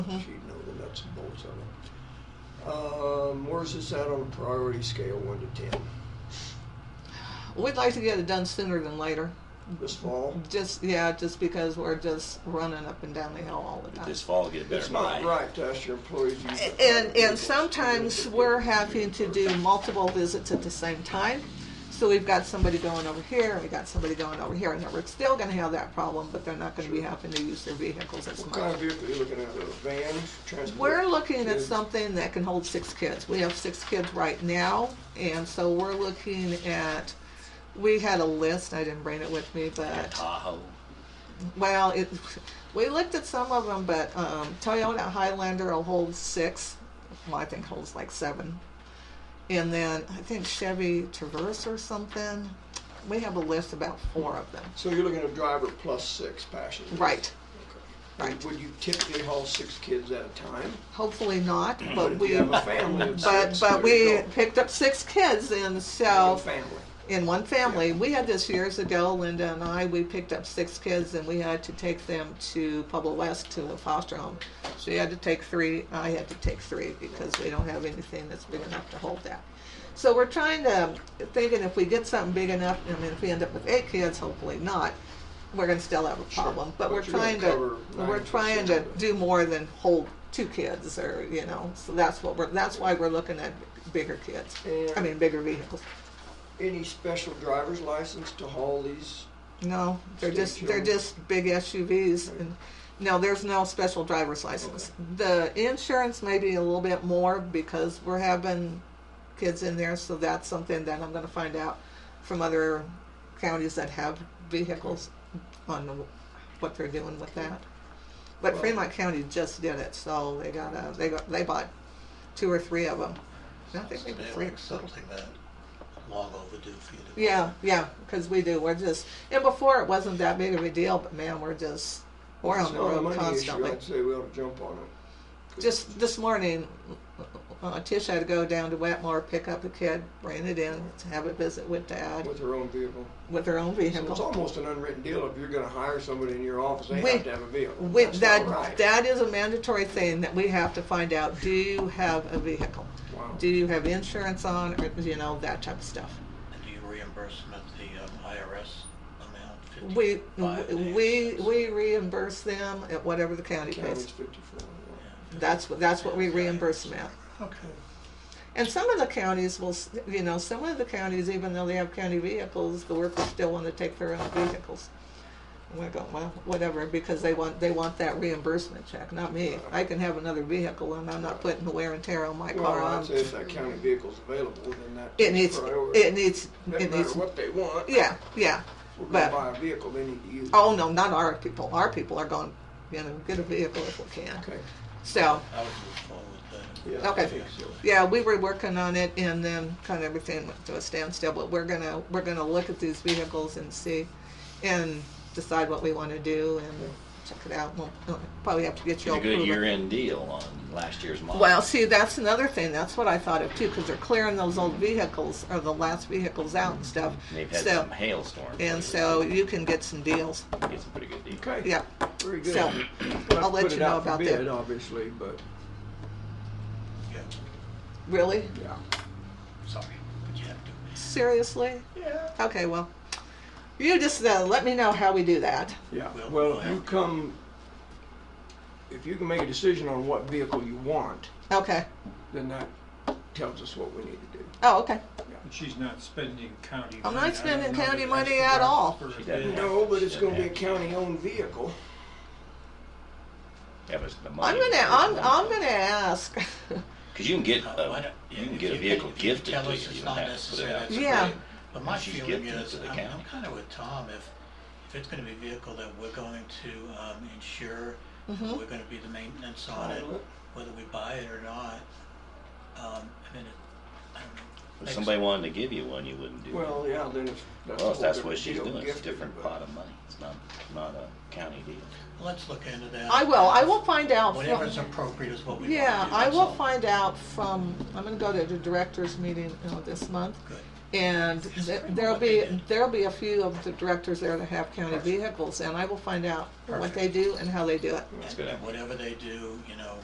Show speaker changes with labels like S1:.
S1: she'd know the nuts and bolts of it. Um, where's this at on a priority scale, one to ten?
S2: We'd like to get it done sooner than later.
S1: This fall?
S2: Just yeah, just because we're just running up and down the hill all the time.
S3: This fall, get a better
S1: It's not
S3: buy.
S1: right to ask your employees. use the
S2: And,
S1: private
S2: and
S1: vehicles.
S2: sometimes we're having to do multiple visits at the same time. So we've got somebody going over here, we got somebody going over here, and we're still gonna have that problem, but they're not gonna be having to use their vehicles as
S1: What kind
S2: much.
S1: of vehicle are you looking at, a van, transport?
S2: We're looking at
S1: kids?
S2: something that can hold six kids. We have six kids right now, and so we're looking at, we had a list, I didn't bring it with me, but.
S3: Tahoe.
S2: Well, it, we looked at some of them, but um, Toyota Highlander will hold six. Well, I think holds like seven. And then I think Chevy Traverse or something. We have a list about four of them.
S1: So you're looking at a driver plus six passengers?
S2: Right,
S1: And
S2: right.
S1: Would you typically haul six kids at a time?
S2: Hopefully not,
S1: But
S2: but
S1: if
S2: we,
S1: you have a family of
S2: but
S1: six,
S2: but
S1: there you
S2: we
S1: go.
S2: picked up six kids, and
S1: One
S2: so
S1: Family.
S2: in one family, we had this years ago. Linda and I, we picked up six kids, and we had to take them to Pueblo West to a foster home. She had to take three. I had to take three because we don't have anything that's big enough to hold that. So we're trying to thinking if we get something big enough. I mean, if we end up with eight kids, hopefully not. We're gonna still have a problem, but,
S1: But
S2: we're
S1: you're gonna
S2: trying
S1: cover
S2: to we're
S1: 90%
S2: trying to
S1: of it.
S2: do more than hold two kids, or you know. So that's what we're that's why we're looking at bigger kids. I
S1: And-
S2: mean, bigger vehicles.
S1: Any special driver's license to haul these?
S2: No, they're
S1: State
S2: just, they're
S1: children.
S2: just big SUVs and, no, there's no special driver's license. The insurance may be a little bit more because we're having kids in there, so that's something that I'm gonna find out from other counties that have vehicles on the- what they're doing with that. But
S1: Well-
S2: Fremont County just did it, so they got a, they got, they bought two or three of them. I think maybe
S4: Something
S2: three.
S4: like Something that long overdue for you to.
S2: Yeah, yeah, because we do. We're just, and before it wasn't that big of a deal, but man, we're just, we're on
S1: It's
S2: the
S1: not a money
S2: road
S1: issue.
S2: constantly.
S1: I'd say we ought to jump on it.
S2: Just this morning, uh, Tish had to go down to Wetmore, pick up a kid, bring it in, to have a visit with dad
S1: With her own vehicle.
S2: with her own
S1: So it's
S2: vehicle.
S1: almost an unwritten deal, if you're gonna hire somebody in your office, they
S2: We-
S1: have to have a vehicle.
S2: With
S1: That's not
S2: that,
S1: right.
S2: that is a mandatory thing that we have to find out. Do you have a vehicle?
S1: Wow.
S2: Do you have insurance on, or you know that type of stuff?
S4: And do you reimburse them at the um, IRS amount?
S2: We
S4: 55 and
S2: we
S4: 86?
S2: we reimburse them at whatever the county
S1: County's
S2: pays.
S1: fifty-four. yeah.
S2: That's what, that's what we reimburse them at.
S4: Okay.
S2: And some of the counties will, s- you know, some of the counties, even though they have county vehicles, the workers still want to take their own vehicles. And we're going, well, whatever, because they want, they want that reimbursement check, not me. I can have another vehicle and I'm not putting the wear and tear on my car.
S1: Well, I'd
S2: I'm-
S1: say if that county vehicle's available, then that.
S2: It needs,
S1: priority.
S2: it needs,
S1: Doesn't
S2: it
S1: matter
S2: needs,
S1: what they want.
S2: yeah, yeah.
S1: We're gonna
S2: but-
S1: buy a vehicle, they need to use it.
S2: Oh, no, not our people. Our people are going, you know, get a vehicle if we can.
S1: Okay,
S2: So,
S4: I would move forward with
S1: yeah. I
S2: Okay.
S1: think so.
S2: Yeah, we were working on it and then kind of everything went to a standstill, but we're gonna, we're gonna look at these vehicles and see, and decide what we wanna do and check it out. We'll we'll probably have to get you
S3: Get
S2: all
S3: a good
S2: approval.
S3: year-end deal on last year's model.
S2: Well, see, that's another thing, that's what I thought of too, because they're clearing those old vehicles, or the last vehicles out and stuff.
S3: And They've had
S2: So,
S3: some hailstorms. lately.
S2: and so you can get some deals,
S3: Get some pretty good deals.
S1: Okay.
S2: yeah.
S1: Very good.
S2: So,
S1: We'll have
S2: I'll
S1: to
S2: let
S1: put
S2: you
S1: it
S2: know
S1: out for
S2: about
S1: bid,
S2: that.
S1: Obviously, but,
S4: that. Yeah,
S2: Really?
S1: yeah.
S4: sorry, but you have to.
S2: Seriously?
S1: Yeah.
S2: Okay, well, you just, uh, let me know how we do that.
S1: Yeah,
S4: We'll-
S1: well,
S4: we'll
S1: if you
S4: have to.
S1: come, if you can make a decision on what vehicle you want,
S2: Okay,
S1: then that tells us what we need to do.
S2: oh, okay.
S5: But she's not spending county money.
S2: I'm
S5: I
S2: not
S5: don't
S2: spending
S5: know
S2: county
S5: that
S2: money
S5: that's
S2: at all.
S5: for a
S3: She doesn't
S5: bid.
S3: have-
S1: No, but it's gonna be a
S3: Yeah.
S1: county-owned vehicle.
S3: Yeah, but it's the money.
S2: I'm gonna, I'm, I'm gonna ask.
S3: Cause you can get,
S4: Uh, why
S3: a
S4: don't-
S3: you can
S4: if
S3: get a
S4: if
S3: vehicle
S4: you
S3: gifted
S4: tell
S3: to you,
S4: us it's
S3: you don't
S4: not
S3: have to put it
S4: necessary,
S3: out.
S4: that's
S3: for
S2: Yeah.
S3: bid.
S4: great. But my
S3: You just
S4: feeling
S3: give them
S4: is,
S3: to the
S4: I'm,
S3: county.
S4: I'm kind of with Tom, if, if it's gonna be a vehicle that we're going to, um, insure,
S2: Mhm.
S4: we're gonna be the maintenance on it,
S1: Title it.
S4: whether we buy it or not, um, I mean, it, I don't know.
S3: If
S4: makes-
S3: somebody wanted to give you one, you wouldn't do it.
S1: Well, yeah, then it's.
S3: Well,
S1: a
S3: if that's
S1: whole
S3: what
S1: different
S3: she's
S1: deal,
S3: doing, it's a
S1: gifted,
S3: different
S1: but-
S3: pot of money. It's not, not a county deal.
S4: Let's look into that.
S2: I will, I will find out. from-
S4: Whatever's appropriate is what we want to do.
S2: Yeah, I
S4: that's
S2: will
S4: all.
S2: find out from, I'm gonna go to the directors meeting, you know, this month.
S4: Good.
S2: And
S4: Yes,
S2: th-
S4: bring
S2: there'll
S4: what they
S2: be,
S4: did.
S2: there'll be a few of the directors there that have county
S4: Perfect.
S2: vehicles and I will find out what
S4: Perfect.
S2: they do and how they do it.
S3: That's
S4: And-
S3: good.
S4: and Whatever they do, you know,